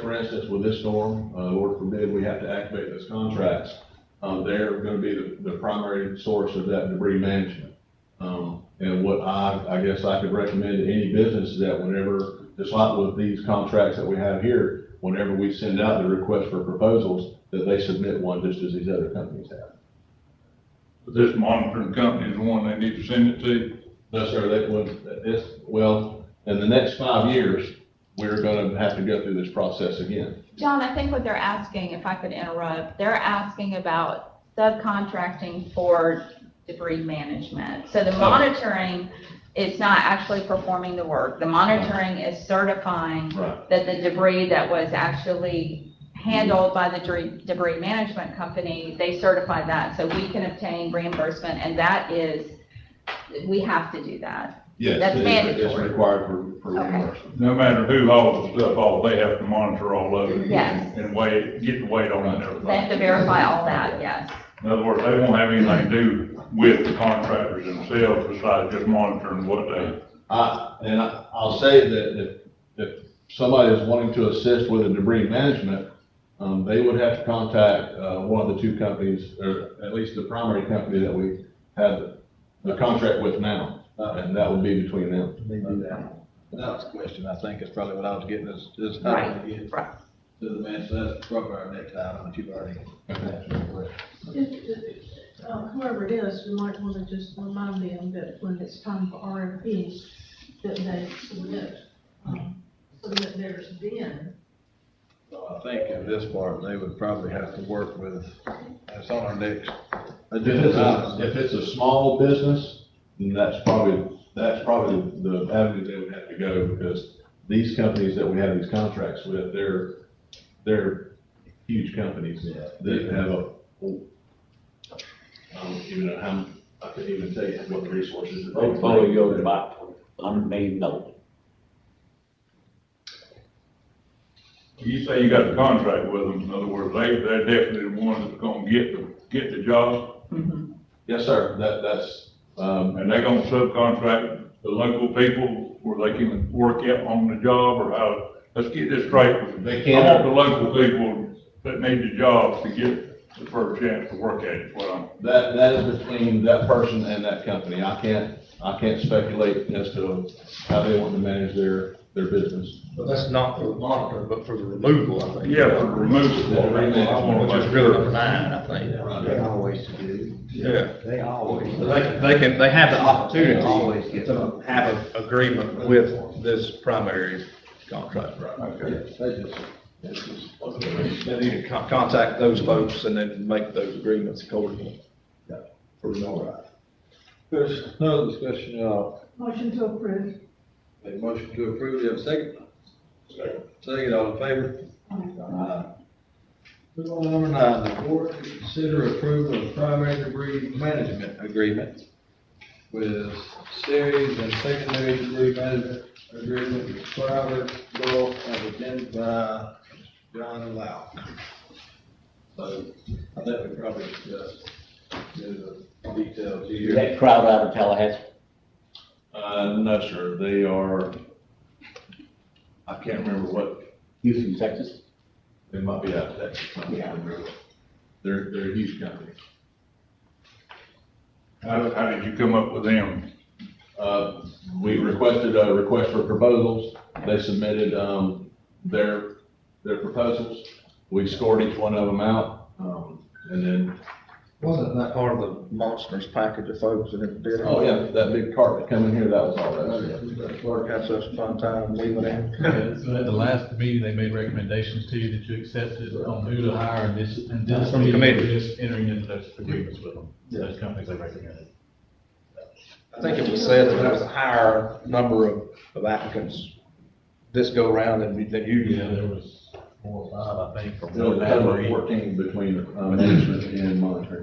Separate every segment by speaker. Speaker 1: For instance, with this storm, uh, Lord forbid, we have to activate those contracts. Uh, they're gonna be the, the primary source of that debris management. Um, and what I, I guess I could recommend to any business is that whenever, just like with these contracts that we have here, whenever we send out the request for proposals, that they submit one just as these other companies have.
Speaker 2: But This monitoring company is the one they need to send it to.
Speaker 1: No, sir, that would, that this, well, in the next five years, we're gonna have to go through this process again.
Speaker 3: John, I think what they're asking, if I could interrupt, they're asking about subcontracting for debris management. So the monitoring is not actually performing the work. The monitoring is certifying
Speaker 1: Right.
Speaker 3: that the debris that was actually handled by the debris- debris management company, they certify that, so we can obtain reimbursement, and that is, we have to do that.
Speaker 1: Yes.
Speaker 3: That's
Speaker 1: it is- It's
Speaker 3: mandatory.
Speaker 1: required for, for
Speaker 3: Okay.
Speaker 1: reimbursement.
Speaker 2: No matter who hauls the stuff off, they have to monitor all of it.
Speaker 3: Yes.
Speaker 2: And weigh, get the weight on it and
Speaker 3: They
Speaker 2: everything.
Speaker 3: have to verify all that, yes.
Speaker 2: In other words, they won't have anything to do with the contractors themselves besides just monitoring what they,
Speaker 1: I, and I, I'll say that if, if somebody is wanting to assist with the debris management, um, they would have to contact, uh, one of the two companies, or at least the primary company that we have the contract with now, uh, and that would be between them.
Speaker 4: They do that. That was the question, I think, is probably what I was getting, is, is how
Speaker 3: Right,
Speaker 4: to get
Speaker 3: right.
Speaker 4: to the man, so that's probably our next item, that you've already answered the question.
Speaker 5: Uh, Whoever it is, we might want to just remind them that when it's time for RFPs, that they submit, um, submit theirs then.
Speaker 4: So uh, I think in this part, they would probably have to work with, that's on our next agenda item.
Speaker 1: If it's a small business, then that's probably, that's probably the avenue they would have to go, because these companies that we have these contracts with, they're, they're huge companies that have a, I don't even know how, I couldn't even tell you what the resources. that they-
Speaker 6: portfolio is about hundred million dollars.
Speaker 2: you say you got a contract with them. In other words, they, they're definitely the ones that's gonna get the, get the job.
Speaker 1: Yes, sir, that, that's, um,
Speaker 2: And they're gonna subcontract the local people where they can work out on the job or how, let's get this straight.
Speaker 1: they
Speaker 2: I want the
Speaker 1: can't,
Speaker 2: local people that need the jobs to get the first chance to work at it, is what I'm,
Speaker 1: that, that is between that person and that company. I can't, I can't speculate as to how they want to manage their, their business.
Speaker 7: But that's not for the monitor, but for the removal, I think.
Speaker 2: yeah, for removal. I want
Speaker 7: Which
Speaker 2: to
Speaker 7: is
Speaker 2: make
Speaker 7: really
Speaker 2: sure.
Speaker 7: number nine, I think.
Speaker 8: They always do.
Speaker 7: Yeah.
Speaker 8: They always.
Speaker 7: But They, can- they can, they have the
Speaker 8: They always
Speaker 7: opportunity
Speaker 8: get-
Speaker 7: to have an agreement with this primary contract.
Speaker 1: Uh,
Speaker 2: Okay.
Speaker 4: They just, it's just,
Speaker 7: They need to con- contact those folks and then make those agreements accordingly. For removal.
Speaker 4: there's no discussion, uh,
Speaker 5: Motion to approve.
Speaker 4: make a motion to approve, you have a second? Second, all in favor? Aye. Move on to number nine, the board to consider approval of primary debris management agreement with series and secondary debris management agreement with Crowder Gulf as identified by John Lau. So I think we probably discussed the details
Speaker 6: Is
Speaker 4: here.
Speaker 6: that crowd out of Tallahassee?
Speaker 1: Uh, no, sir, they are, I can't remember what,
Speaker 6: Houston, Texas?
Speaker 1: they might be out of Texas, I can't remember. They're, they're a huge company.
Speaker 2: How, how did you come up with them?
Speaker 1: Uh, we requested a request for proposals, they submitted, um, their, their proposals. We scored each one of them out, um, and then,
Speaker 7: Wasn't that part of the monsters package of folks that had did it?
Speaker 1: oh yeah, that big cart that come in here, that was all
Speaker 6: Oh,
Speaker 1: that.
Speaker 7: The Clerk had such a fun time leaving it.
Speaker 9: So at the last meeting, they made recommendations to you that you accepted on who to hire and this, and
Speaker 7: That's
Speaker 9: this
Speaker 7: from the
Speaker 9: meeting,
Speaker 7: committee.
Speaker 9: we're just entering into those agreements with them, those companies they recommended.
Speaker 7: I think it was said that there was a higher number of, of applicants this go around than, we- than usually.
Speaker 9: Yeah, there was four or five, I think, from.
Speaker 1: There was
Speaker 9: Montgomery.
Speaker 1: fourteen between, uh, management and monitoring.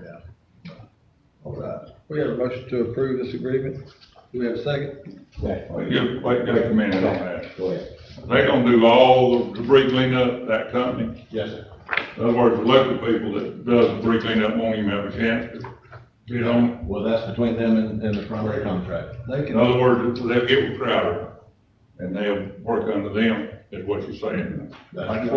Speaker 4: All right, we have a motion to approve this agreement. Do we have a second?
Speaker 2: Wait, just- wait just a minute on that.
Speaker 6: Go ahead.
Speaker 2: They gonna do all the debris cleanup, that company?
Speaker 1: Yes, sir.
Speaker 2: In other words, the local people that does debris cleanup won't even have a chance to bid on it.
Speaker 1: Well, that's between them and, and the primary contractor.
Speaker 4: They
Speaker 2: In
Speaker 4: can,
Speaker 2: other words, they'll get with Crowder and they'll work under them, is what you're saying.
Speaker 1: That's-